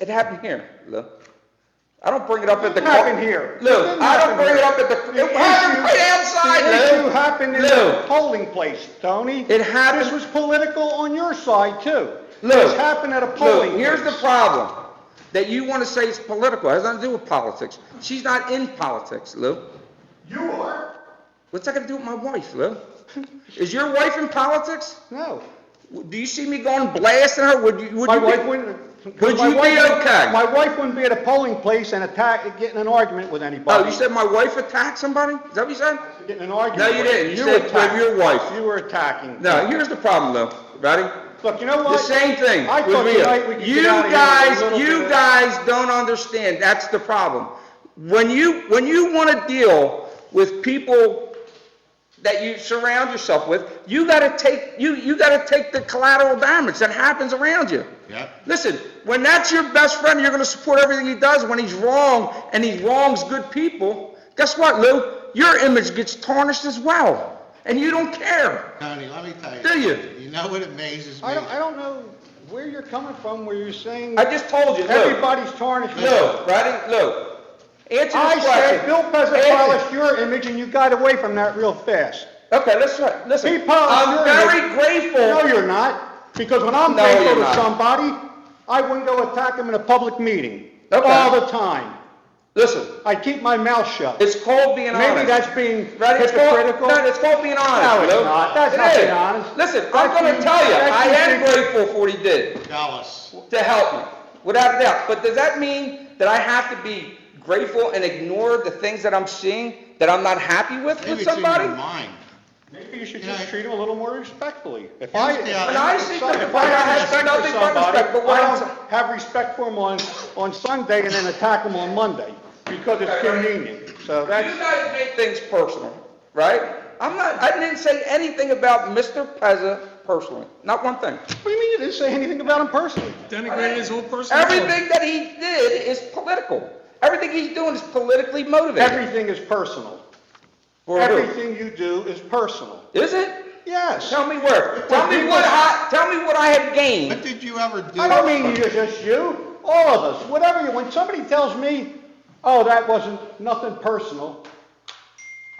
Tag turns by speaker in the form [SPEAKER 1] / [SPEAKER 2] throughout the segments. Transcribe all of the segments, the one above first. [SPEAKER 1] It happened here, Lou. I don't bring it up at the.
[SPEAKER 2] It happened here.
[SPEAKER 1] Lou,
[SPEAKER 2] It
[SPEAKER 1] I don't
[SPEAKER 2] happened
[SPEAKER 1] bring it
[SPEAKER 2] here.
[SPEAKER 1] up at the,
[SPEAKER 2] The
[SPEAKER 1] it happened
[SPEAKER 2] issue-
[SPEAKER 1] right outside,
[SPEAKER 2] The
[SPEAKER 1] Lou.
[SPEAKER 2] issue happened in the
[SPEAKER 1] Lou.
[SPEAKER 2] polling place, Tony.
[SPEAKER 1] It happened-
[SPEAKER 2] This was political on your side, too.
[SPEAKER 1] Lou.
[SPEAKER 2] This happened at a polling
[SPEAKER 1] Lou, here's the
[SPEAKER 2] place.
[SPEAKER 1] problem, that you want to say it's political, it has nothing to do with politics. She's not in politics, Lou.
[SPEAKER 2] You are?
[SPEAKER 1] What's that gonna do with my wife, Lou? Is your wife in politics?
[SPEAKER 2] No.
[SPEAKER 1] Do you see me going blasting her? Would you, would you?
[SPEAKER 2] My
[SPEAKER 1] be-
[SPEAKER 2] wife wouldn't.
[SPEAKER 1] Would
[SPEAKER 2] my
[SPEAKER 1] you be
[SPEAKER 2] wife wouldn't-
[SPEAKER 1] okay?
[SPEAKER 2] My wife wouldn't be at a polling place and attack, getting an argument with anybody.
[SPEAKER 1] Oh, you said my wife attacked somebody? Is that what you said?
[SPEAKER 2] Getting an argument.
[SPEAKER 1] No, you
[SPEAKER 2] with-
[SPEAKER 1] didn't. You
[SPEAKER 2] were
[SPEAKER 1] said with your
[SPEAKER 2] attacking.
[SPEAKER 1] wife.
[SPEAKER 2] You were attacking.
[SPEAKER 1] No, here's the problem, Lou. Ready?
[SPEAKER 2] Look, you know what?
[SPEAKER 1] The same thing
[SPEAKER 2] I
[SPEAKER 1] with
[SPEAKER 2] thought
[SPEAKER 1] Rita.
[SPEAKER 2] tonight we could
[SPEAKER 1] You
[SPEAKER 2] get out of here with a
[SPEAKER 1] guys,
[SPEAKER 2] little bit
[SPEAKER 1] you
[SPEAKER 2] of-
[SPEAKER 1] guys don't understand, that's the problem. When you, when you wanna deal with people that you surround yourself with, you gotta take, you, you gotta take the collateral damage that happens around you.
[SPEAKER 3] Yep.
[SPEAKER 1] Listen, when that's your best friend, you're gonna support everything he does, when he's wrong, and he wrongs good people, guess what, Lou? Your image gets tarnished as well, and you don't care.
[SPEAKER 3] Tony, let me tell you.
[SPEAKER 1] Do you?
[SPEAKER 3] something. You know what amazes me?
[SPEAKER 2] I don't, I don't know where you're coming from, where you're saying
[SPEAKER 1] I just told you, Lou.
[SPEAKER 2] everybody's tarnished. with-
[SPEAKER 1] No, Rodney, no. Answer this
[SPEAKER 2] I
[SPEAKER 1] question.
[SPEAKER 2] said Bill Pezza
[SPEAKER 1] Answer-
[SPEAKER 2] polished your image and you got away from that real fast.
[SPEAKER 1] Okay, let's try, listen.
[SPEAKER 2] He polished
[SPEAKER 1] I'm
[SPEAKER 2] your
[SPEAKER 1] very
[SPEAKER 2] image. No,
[SPEAKER 1] grateful.
[SPEAKER 2] you're not, because when I'm
[SPEAKER 1] No, you're
[SPEAKER 2] grateful to
[SPEAKER 1] not.
[SPEAKER 2] somebody, I wouldn't go attack him in a public meeting.
[SPEAKER 1] Okay.
[SPEAKER 2] All the time.
[SPEAKER 1] Listen,
[SPEAKER 2] I keep my mouth shut.
[SPEAKER 1] it's called being honest.
[SPEAKER 2] Maybe that's being
[SPEAKER 1] Right, it's called-
[SPEAKER 2] hypocritical.
[SPEAKER 1] No, it's called being honest.
[SPEAKER 2] No, it's
[SPEAKER 1] Lou.
[SPEAKER 2] not. That's
[SPEAKER 1] It
[SPEAKER 2] not being
[SPEAKER 1] is.
[SPEAKER 2] honest.
[SPEAKER 1] Listen,
[SPEAKER 2] I
[SPEAKER 1] I'm gonna
[SPEAKER 2] can-
[SPEAKER 1] tell you,
[SPEAKER 2] I
[SPEAKER 1] I
[SPEAKER 2] can
[SPEAKER 1] am
[SPEAKER 2] think-
[SPEAKER 1] grateful for what he did
[SPEAKER 3] Jealous.
[SPEAKER 1] to help me, without a doubt. But does that mean that I have to be grateful and ignore the things that I'm seeing, that I'm not happy with,
[SPEAKER 3] Maybe
[SPEAKER 1] with
[SPEAKER 3] it's in
[SPEAKER 1] somebody?
[SPEAKER 3] your mind.
[SPEAKER 2] Maybe you should
[SPEAKER 3] You know,
[SPEAKER 2] just
[SPEAKER 3] I-
[SPEAKER 2] treat him a little more respectfully. If I,
[SPEAKER 3] Here's the-
[SPEAKER 2] if
[SPEAKER 1] When I see
[SPEAKER 2] if
[SPEAKER 1] the
[SPEAKER 2] I- if
[SPEAKER 1] fire,
[SPEAKER 2] I
[SPEAKER 1] I have
[SPEAKER 2] have respect
[SPEAKER 1] nothing
[SPEAKER 2] for
[SPEAKER 1] but respect,
[SPEAKER 2] somebody,
[SPEAKER 1] but what
[SPEAKER 2] I
[SPEAKER 1] I'm
[SPEAKER 2] don't
[SPEAKER 1] sa-
[SPEAKER 2] have respect for him on, on Sunday and then attack him on Monday because it's
[SPEAKER 1] Okay, right.
[SPEAKER 2] convenient. So
[SPEAKER 1] You
[SPEAKER 2] that's,
[SPEAKER 1] guys make things personal, right? I'm not, I didn't say anything about Mr. Pezza personally, not one thing.
[SPEAKER 2] what do you mean you didn't say anything about him personally?
[SPEAKER 4] denigrated his whole personality.
[SPEAKER 1] Everything that he did is political. Everything he's doing is politically motivated.
[SPEAKER 2] Everything is personal.
[SPEAKER 1] For who?
[SPEAKER 2] Everything you do is personal.
[SPEAKER 1] Is it?
[SPEAKER 2] Yes.
[SPEAKER 1] Tell me where. Tell me what I, tell me what I had
[SPEAKER 3] What
[SPEAKER 1] gained.
[SPEAKER 3] did you ever do?
[SPEAKER 2] I don't mean you, just you, all of us, whatever you, when somebody tells me, oh, that wasn't, nothing personal,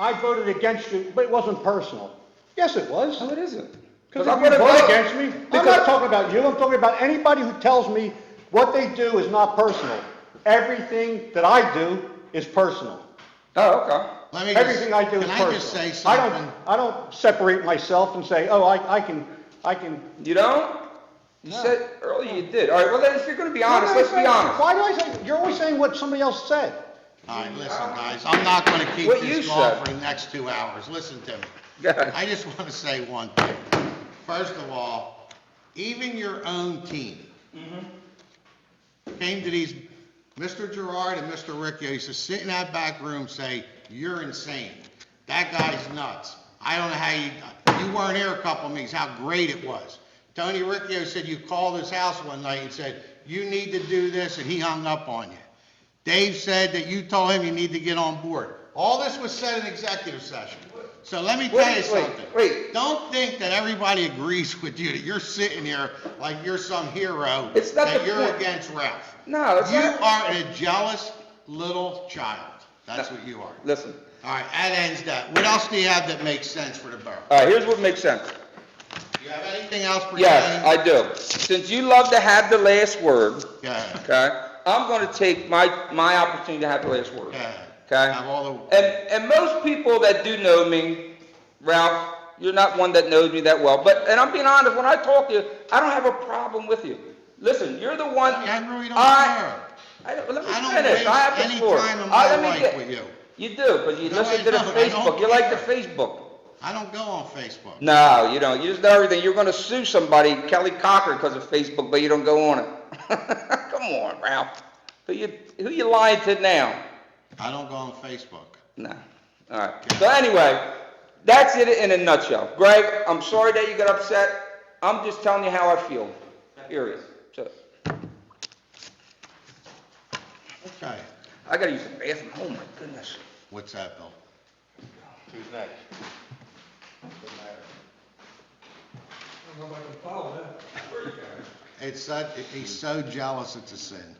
[SPEAKER 2] I voted against you, but it wasn't personal. Yes, it was.
[SPEAKER 1] No, it isn't.
[SPEAKER 2] Because
[SPEAKER 1] I'm
[SPEAKER 2] if you
[SPEAKER 1] gonna
[SPEAKER 2] vote
[SPEAKER 1] vote-
[SPEAKER 2] against me, I'm
[SPEAKER 1] because-
[SPEAKER 2] not talking about you, I'm talking about anybody who tells me what they do is not personal. Everything that I do is personal.
[SPEAKER 1] Oh, okay.
[SPEAKER 3] Let me just-
[SPEAKER 2] Everything I do is personal.
[SPEAKER 3] Can I just say
[SPEAKER 2] I don't-
[SPEAKER 3] something?
[SPEAKER 2] I don't separate myself and say, oh, I, I can, I can.
[SPEAKER 1] You don't? You
[SPEAKER 2] No.
[SPEAKER 1] said earlier you did. All right, well then, if you're gonna be honest,
[SPEAKER 2] Why do
[SPEAKER 1] let's
[SPEAKER 2] I
[SPEAKER 1] be
[SPEAKER 2] say-
[SPEAKER 1] honest.
[SPEAKER 2] Why do I say, you're always saying what somebody else said.
[SPEAKER 3] All right, listen, guys, I'm not going to keep
[SPEAKER 1] What you
[SPEAKER 3] this going
[SPEAKER 1] said.
[SPEAKER 3] for the next two hours. Listen to me.
[SPEAKER 1] Go ahead.
[SPEAKER 3] I just want to say one thing. First of all, even your own team came to these, Mr. Gerard and Mr. Riccio used to sit in that back room, say, "You're insane. That guy's nuts. I don't know how you, you weren't here a couple of meetings, how great it was." Tony Riccio said you called his house one night and said, "You need to do this," and he hung up on you. Dave said that you told him you need to get on board. All this was said in executive session. So let me tell you
[SPEAKER 1] Wait, wait,
[SPEAKER 3] something.
[SPEAKER 1] wait.
[SPEAKER 3] Don't think that everybody agrees with you, that you're sitting here like you're some hero.
[SPEAKER 1] It's not
[SPEAKER 3] That
[SPEAKER 1] the
[SPEAKER 3] you're
[SPEAKER 1] point.
[SPEAKER 3] against Ralph.
[SPEAKER 1] No, it's
[SPEAKER 3] You
[SPEAKER 1] not-
[SPEAKER 3] are a jealous little child. That's what you are.
[SPEAKER 1] Listen,
[SPEAKER 3] All right, that ends that. What else do you have that makes sense for the borough?
[SPEAKER 1] all right, here's what makes sense.
[SPEAKER 3] Do you have anything else pertaining?
[SPEAKER 1] Yes, I do. Since you love to have the last word,
[SPEAKER 3] Go ahead.
[SPEAKER 1] okay, I'm gonna take my, my opportunity to have the last word.
[SPEAKER 3] Yeah.
[SPEAKER 1] Okay?
[SPEAKER 3] Have all the-
[SPEAKER 1] And, and most people that do know me, Ralph, you're not one that knows me that well, but, and I'm being honest, when I talk to you, I don't have a problem with you. Listen, you're the one.
[SPEAKER 3] I really don't
[SPEAKER 1] I- I don't- let me
[SPEAKER 3] I don't
[SPEAKER 1] finish, I have
[SPEAKER 3] waste
[SPEAKER 1] the
[SPEAKER 3] any
[SPEAKER 1] floor.
[SPEAKER 3] time in
[SPEAKER 1] I-
[SPEAKER 3] my
[SPEAKER 1] let me
[SPEAKER 3] life
[SPEAKER 1] get-
[SPEAKER 3] with you.
[SPEAKER 1] You do, but you
[SPEAKER 3] No,
[SPEAKER 1] listen
[SPEAKER 3] I
[SPEAKER 1] to the
[SPEAKER 3] don't. I don't
[SPEAKER 1] Facebook, you like the
[SPEAKER 3] care.
[SPEAKER 1] Facebook.
[SPEAKER 3] I don't go on Facebook.
[SPEAKER 1] No, you don't. You just know everything. You're going to sue somebody, Kelly Cocker, because of Facebook, but you don't go on it. Come on, Ralph. Who you who you lying to now?
[SPEAKER 3] I don't go on Facebook.
[SPEAKER 1] No. All right. So anyway, that's it in a nutshell. Greg, I'm sorry that you got upset. I'm just telling you how I feel. Period. So
[SPEAKER 3] Okay.
[SPEAKER 1] I got to use the bathroom. Oh my goodness.
[SPEAKER 3] What's that, Bill?
[SPEAKER 2] Who's next?
[SPEAKER 3] It's, that- he's so jealous, it's a sin.